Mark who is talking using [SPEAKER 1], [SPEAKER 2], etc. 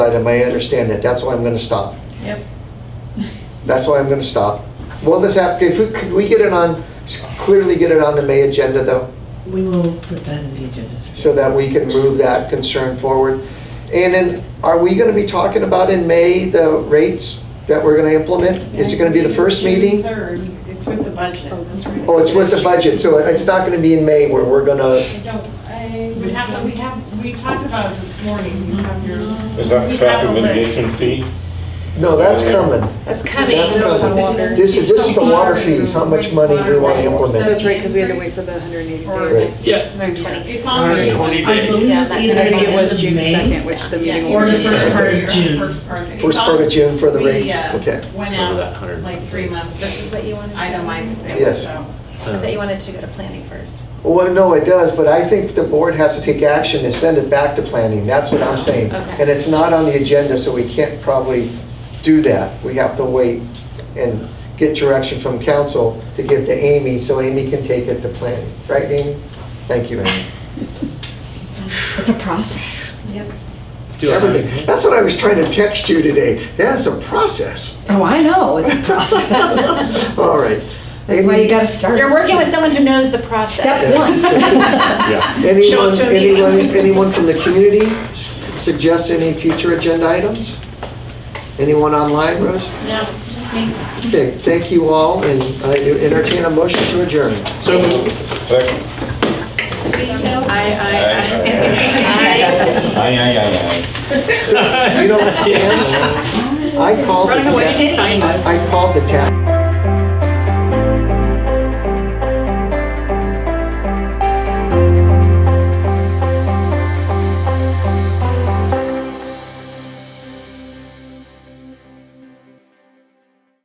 [SPEAKER 1] item, I understand that, that's why I'm gonna stop.
[SPEAKER 2] Yep.
[SPEAKER 1] That's why I'm gonna stop. Will this app, if we, could we get it on, clearly get it on the May agenda though,
[SPEAKER 2] We will put that in the agenda.
[SPEAKER 1] so that we can move that concern forward? And then, are we gonna be talking about in May the rates that we're gonna implement? Is it gonna be the first meeting?
[SPEAKER 3] Third, it's with the budget.
[SPEAKER 1] Oh, it's with the budget, so it's not gonna be in May where we're gonna,
[SPEAKER 3] I don't, I, we have, we have, we talked about it this morning, you have your.
[SPEAKER 4] Is that
[SPEAKER 3] we
[SPEAKER 4] the
[SPEAKER 3] have
[SPEAKER 4] traffic
[SPEAKER 3] a list.
[SPEAKER 4] mitigation fee?
[SPEAKER 1] no, that's coming.
[SPEAKER 5] That's coming.
[SPEAKER 1] That's coming. This is, this is the water fees, how much money do we wanna implement?
[SPEAKER 5] That's right, because we had to wait for the 180
[SPEAKER 3] Or
[SPEAKER 5] days.
[SPEAKER 3] it's-
[SPEAKER 6] Yes.
[SPEAKER 3] It's on there.
[SPEAKER 6] 120
[SPEAKER 2] I believe
[SPEAKER 5] Yeah,
[SPEAKER 2] it's
[SPEAKER 5] that's- I
[SPEAKER 2] either
[SPEAKER 5] think
[SPEAKER 2] the
[SPEAKER 5] it
[SPEAKER 2] end
[SPEAKER 5] was
[SPEAKER 2] of
[SPEAKER 5] June
[SPEAKER 2] May.
[SPEAKER 5] 2nd, which the meeting
[SPEAKER 3] Yeah, Or
[SPEAKER 5] will
[SPEAKER 3] the
[SPEAKER 5] be.
[SPEAKER 3] first
[SPEAKER 5] June.
[SPEAKER 3] part of your,
[SPEAKER 2] June.
[SPEAKER 3] first part. It's
[SPEAKER 1] First part of
[SPEAKER 3] on-
[SPEAKER 1] June for the
[SPEAKER 3] we,
[SPEAKER 1] rates,
[SPEAKER 3] uh,
[SPEAKER 1] okay.
[SPEAKER 3] Went
[SPEAKER 4] Remember that
[SPEAKER 3] out
[SPEAKER 4] hundred
[SPEAKER 3] like
[SPEAKER 4] something.
[SPEAKER 3] three months, this is
[SPEAKER 7] But you wanted.
[SPEAKER 3] itemized
[SPEAKER 1] Yes.
[SPEAKER 3] things, so.
[SPEAKER 7] I thought you wanted to go to planning first.
[SPEAKER 1] Well, no, it does, but I think the board has to take action and send it back to planning, that's what I'm saying.
[SPEAKER 5] Okay.
[SPEAKER 1] And it's not on the agenda, so we can't probably do that. We have to wait and get direction from council to give to Amy, so Amy can take it to planning. Right, Amy? Thank you, Amy.
[SPEAKER 2] It's a process.
[SPEAKER 7] Yep.
[SPEAKER 1] Everything, that's what I was trying to text you today, that's a process.
[SPEAKER 2] Oh, I know, it's a process.
[SPEAKER 1] All right.
[SPEAKER 2] That's why you gotta start.
[SPEAKER 7] You're working with someone who knows the process.
[SPEAKER 2] Step one.
[SPEAKER 4] Yeah.
[SPEAKER 1] Anyone, anyone, anyone from the community suggest any future agenda items? Anyone online, Rose?
[SPEAKER 7] No, just me.
[SPEAKER 1] Okay, thank you all, and I do entertain a motion to adjourn.
[SPEAKER 6] So moved.
[SPEAKER 4] Second.
[SPEAKER 5] I, I, I.
[SPEAKER 4] Aye, aye, aye, aye.
[SPEAKER 1] You don't have to- I called, the
[SPEAKER 5] Running away,
[SPEAKER 1] ta-
[SPEAKER 5] sign this.
[SPEAKER 1] I called the tax.